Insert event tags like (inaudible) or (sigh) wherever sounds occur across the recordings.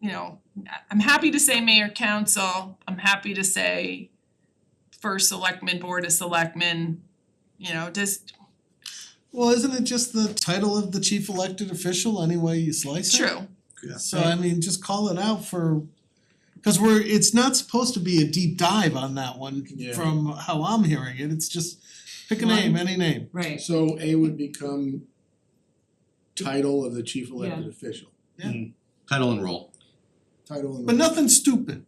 you know, I- I'm happy to say mayor council, I'm happy to say first selectman, board of selectmen, you know, just Well, isn't it just the title of the chief elected official anyway you slice it? true, So I mean, just call it out for, cause we're, it's not supposed to be a deep dive on that one Yeah. from how I'm hearing it, it's just pick a One. name, any name. Right, So A would become title of the chief elected official, title and role. title and. But (laughs) nothing stupid.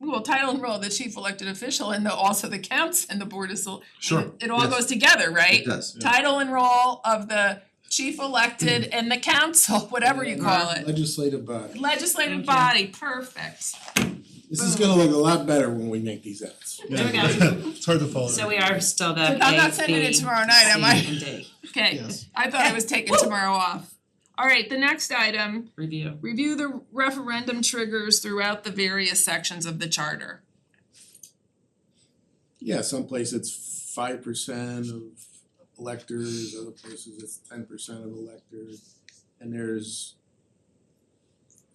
well, title and role, of the chief elected official and the also the counts and the board of sel- Sure. it- it all yes, goes together, right? It does. Title and role of the chief (clears throat) elected and the council, whatever you call it. Legislative body. Legislative Thank body, you. perfect. This is gonna look a lot better when we make these outs. There we go. (laughs) It's hard to follow. so we are still the I'm not sending it tomorrow night, am I? A, B, C, and D. Okay, Yes. I thought I was taking tomorrow off. Alright, the next item, Review. review the referendum triggers throughout the various sections of the charter. Yeah, someplace it's five percent of electors, other places it's ten percent of electors. And there's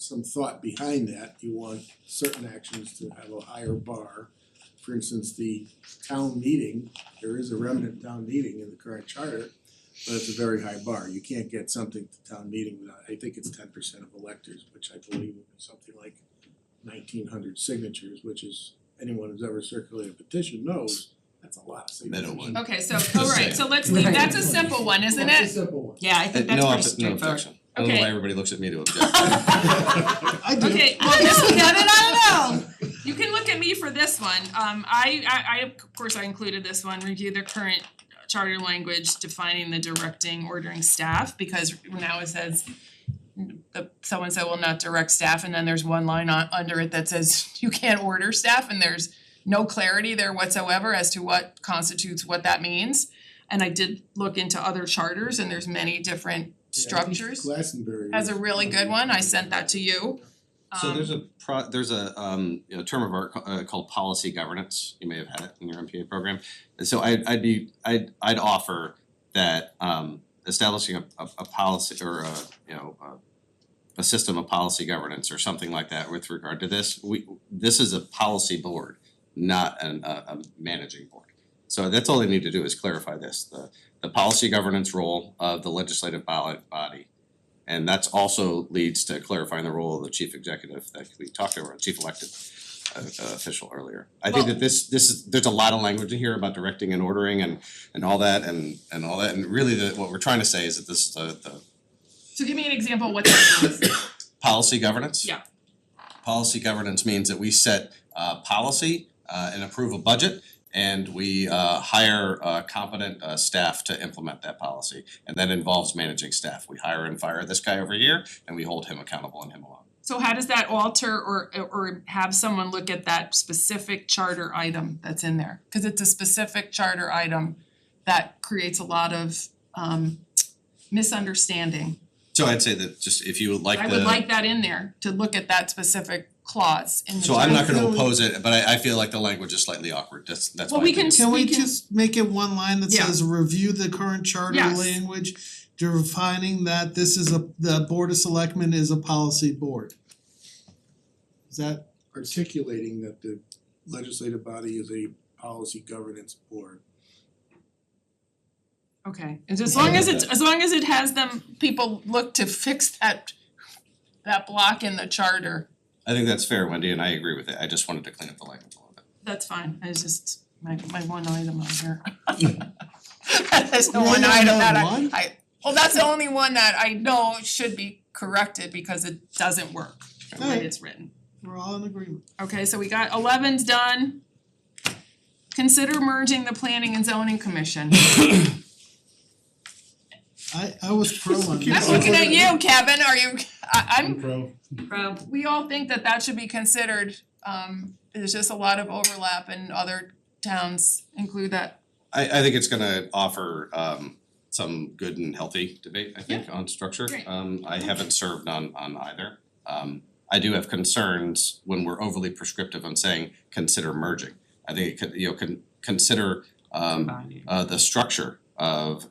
some thought behind that, you want certain actions to have a higher bar. For instance, the town meeting, there is a remnant town meeting in the current charter, but it's a very high bar, you can't get something to town meeting without, I think it's ten percent of electors, which I believe is something like nineteen hundred signatures, which is anyone who's ever circulated a petition knows, that's a lot of signatures. Middle one. Okay, so, alright, so let's leave, Right. that's a simple one, isn't That's a it? simple (laughs) one. Yeah, I Uh, think that's No, pretty obje- no straightforward. objection. I don't know Okay. why everybody looks at me to object. (laughs) I do. Okay, well, this is, no, no, no, no, no. You can look at me for this one. Um, I, I, I, of course, I included this one, review the current charter language defining the directing, ordering staff, because now it says the, someone said, well, not direct staff, and then there's one line on, under it that says (laughs) you can't order staff, and there's no clarity there whatsoever as to what constitutes what that means. And I did look into other charters, and there's many different structures. Glastonbury. Has a really good one. I sent that to you. So Um, there's a pro, there's a um you know term of art ca- uh called policy governance, you may have had it in your MPA program. And so I I'd be, I'd I'd offer that um establishing a a a policy or a, you know, a a system of policy governance or something like that with regard to this, we, this is a policy board, not an a a managing board. So that's all they need to do is clarify this, the the policy governance role of the legislative ballot body and that's also leads to clarifying the role of the chief executive that we talked over, chief elected uh uh, official earlier. I think that this this is, there's a lot of language in here about directing and ordering and and all that and and all that, and really the what we're trying to say is that this is the the So give me an example of what that means. policy governance. Yeah. Policy governance means that we set uh policy uh and approve a budget and we uh hire uh competent uh staff to implement that policy. And that involves managing staff. We hire and fire this guy over here and we hold him accountable and him alone. So how does that alter or or have someone look at that specific charter item that's in there? Cause it's a specific charter item that creates a lot of um misunderstanding. So I'd say that just if you would like I the, would like that in there, to look at that specific clause in the so I'm not charter. gonna oppose it, but I I feel like the language is slightly awkward, that's that's why. Well, we I did can- it. Can we we can- just make it one line that Yeah. says review the current charter Yes. language? Defining that this is a, the board of selectmen is a policy board. Is that, Articulating that the legislative body is a policy governance board. Okay, as as long as it's, as long as it has them, people look to fix that that block in the charter, I think that's fair, Wendy, and I agree with it, I just wanted to clean up the language a little bit. that's fine, I was just, my my one item on here. There's no You one only item have that I one? I, well, that's the only one that I know should be corrected because it doesn't work the way Alright. it's written. we're all in agreement. Okay, so we got eleven's done. Consider merging the planning and zoning commission. I I was pro on Keep that. (laughs) I'm looking at you, Kevin, are you, I I'm Pro. Pro, we all think that that should be considered, um, there's just a lot of overlap and other towns include that. I I think it's gonna offer um some good and healthy debate, I think, on structure. Great. Um I haven't served on on either. Um I do have concerns when we're overly prescriptive on saying consider merging. I think it could, you know, con- consider um combining. uh the structure of